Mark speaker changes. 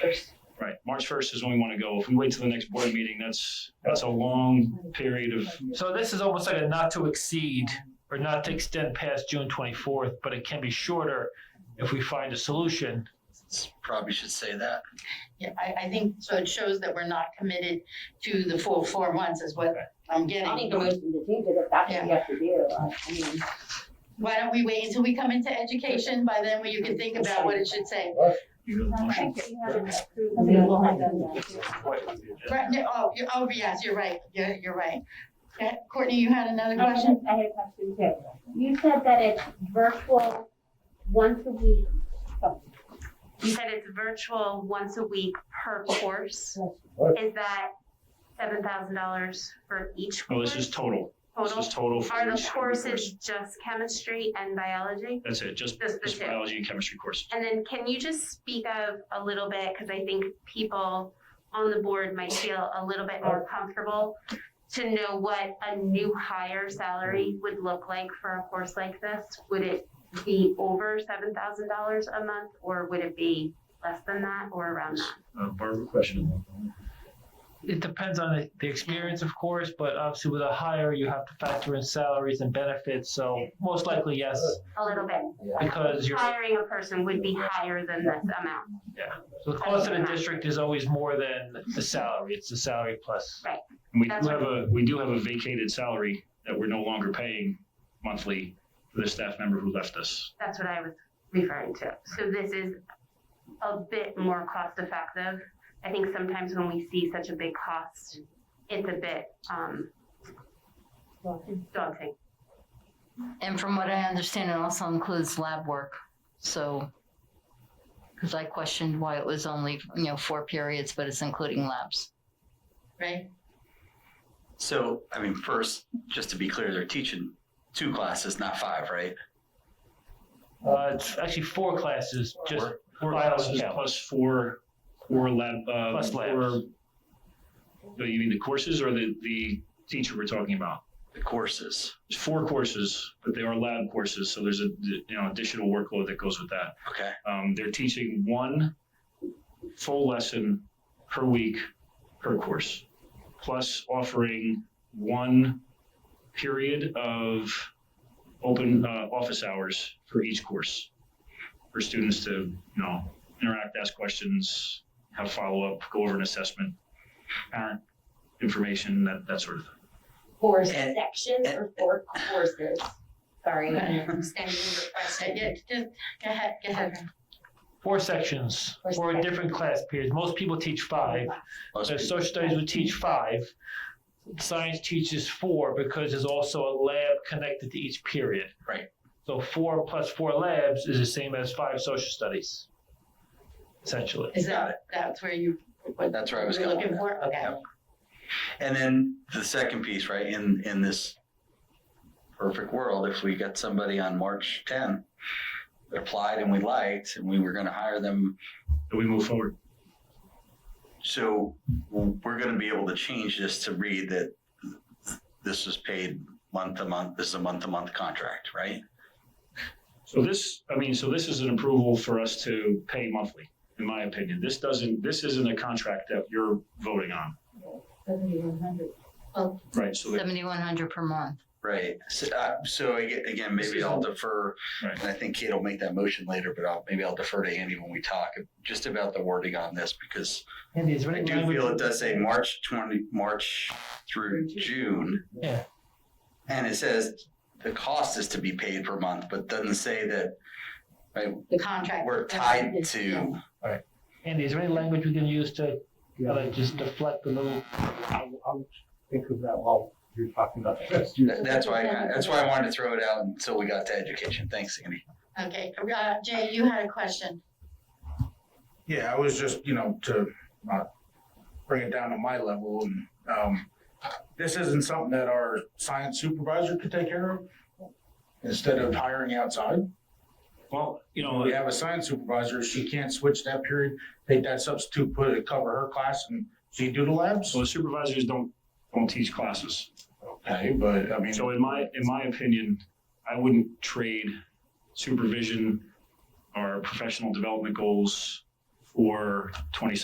Speaker 1: first.
Speaker 2: Right, March first is when we want to go. If we wait till the next board meeting, that's, that's a long period of,
Speaker 3: So this is almost like a not to exceed or not to extend past June twenty-fourth, but it can be shorter if we find a solution.
Speaker 4: Probably should say that.
Speaker 1: Yeah, I, I think, so it shows that we're not committed to the full four months is what I'm
Speaker 5: I make
Speaker 1: getting.
Speaker 5: a motion to change it if that's what we have to do. I I mean,
Speaker 1: Why don't we wait until we come into education? By then, we- you can think about what it should say.
Speaker 2: you know, motion.
Speaker 5: I mean, we'll have them then.
Speaker 1: Right, no, oh, you- oh, yes, you're right. Yeah, you're right. Yeah, Courtney, you had another
Speaker 6: I had
Speaker 1: question?
Speaker 6: a- I had a question too. You said that it's virtual once a week. oh, You said it's virtual once a week per course. Is that seven thousand dollars for each
Speaker 2: No,
Speaker 6: course
Speaker 2: Oh, this is total. This
Speaker 6: total?
Speaker 2: is total. for
Speaker 6: Are
Speaker 2: each
Speaker 6: the
Speaker 2: of
Speaker 6: courses just chemistry and biology?
Speaker 2: That's it, just,
Speaker 6: Just the
Speaker 2: just
Speaker 6: two.
Speaker 2: biology and chemistry courses.
Speaker 6: And then can you just speak of a little bit, because I think people on the board might feel a little bit more comfortable to know what a new hire salary would look like for a course like this? Would it be over seven thousand dollars a month, or would it be less than that, or around that?
Speaker 2: Uh, Barbara, question?
Speaker 3: It depends on the, the experience, of course, but obviously with a hire, you have to factor in salaries and benefits, so most likely, yes,
Speaker 6: A little bit.
Speaker 3: because you're,
Speaker 6: Hiring a person would be higher than this amount.
Speaker 3: the cost of the district is always more than the salary, it's the salary plus.
Speaker 2: And we
Speaker 6: That's
Speaker 2: do have a, we do have a vacated salary that we're no longer paying monthly for the staff member who left us.
Speaker 6: That's what I was referring to. So this is a bit more cost effective. I think sometimes when we see such a big cost, it's a bit um, daunting.
Speaker 7: And from what I understand, it also includes lab work. So, because I questioned why it was only, you know, four periods, but it's including labs.
Speaker 1: Right?
Speaker 4: So, I mean, first, just to be clear, they're teaching two classes, not five, right?
Speaker 3: Uh, it's actually four classes, just
Speaker 4: Four.
Speaker 2: Four
Speaker 3: Biology
Speaker 2: classes
Speaker 3: count.
Speaker 2: plus four, four lab, uh.
Speaker 3: Plus labs.
Speaker 2: four- So you mean the courses or the, the teacher we're talking about?
Speaker 4: The courses.
Speaker 2: There's four courses, but they are lab courses, so there's a you know additional workload that goes with that.
Speaker 4: Okay.
Speaker 2: Um, they're teaching one full lesson per week per course, plus offering one period of open uh, office hours for each course for students to you know interact, ask questions, have follow up, go over an assessment, parent information, that that sort of thing.
Speaker 5: Four
Speaker 4: And-
Speaker 5: sections or four courses? Sorry, I'm extending your
Speaker 1: Okay,
Speaker 5: question.
Speaker 1: Yeah, just, go ahead, go ahead.
Speaker 3: four sections,
Speaker 5: Four
Speaker 3: four
Speaker 5: sections.
Speaker 3: different class periods. Most people teach five.
Speaker 4: Most
Speaker 3: So
Speaker 4: people-
Speaker 3: social studies would teach five. Science teaches four because there's also a lab connected to each period.
Speaker 4: Right.
Speaker 3: So four plus four labs is the same as five social studies, essentially.
Speaker 1: Is
Speaker 4: Got
Speaker 1: that, that's where you, what
Speaker 4: That's where I
Speaker 1: you're
Speaker 4: was going.
Speaker 1: looking for? Okay.
Speaker 4: Yep. And then the second piece, right, in, in this perfect world, if we got somebody on March 10 that applied and we liked and we were going to hire them,
Speaker 2: So we move forward.
Speaker 4: so we're going to be able to change this to read that this is paid month to month, this is a month to month contract, right?
Speaker 2: So this, I mean, so this is an approval for us to pay monthly, in my opinion. This doesn't, this isn't a contract that you're voting on. Right, so the-
Speaker 7: 7,100 per month.
Speaker 4: Right. So, uh, so aga- again,
Speaker 2: This
Speaker 4: maybe
Speaker 2: is
Speaker 4: I'll
Speaker 2: a-
Speaker 4: defer,
Speaker 2: Right.
Speaker 4: and I think Kate will make that motion later, but I'll, maybe I'll defer to Andy when we talk just about the wording on this because
Speaker 3: Andy, is there
Speaker 4: I
Speaker 3: any
Speaker 4: do feel it
Speaker 3: language?
Speaker 4: does say March twenty, March through June.
Speaker 3: Yeah.
Speaker 4: And it says the cost is to be paid per month, but doesn't say that
Speaker 1: The contract.
Speaker 4: we're tied to.
Speaker 3: Andy, is there any language we can use to kinda just deflect the little?
Speaker 8: I'll, I'll think of that while you're talking about this.
Speaker 4: That- That's why, I kinda- that's why I wanted to throw it out until we got to education. Thanks, Andy.
Speaker 1: Okay, uh, Jay, you had a question.
Speaker 9: Yeah, I was just, you know, to uh, bring it down to my level, and um, this isn't something that our science supervisor could take care of instead of hiring outside.
Speaker 2: well, you know,
Speaker 9: We have a science supervisor; she can't switch that period, take that substitute, put it cover her class, and she do the labs.
Speaker 2: so the supervisors don't, don't teach classes.
Speaker 9: Okay, but I mean,
Speaker 2: So in my, in my opinion, I wouldn't trade supervision or professional development goals for twenty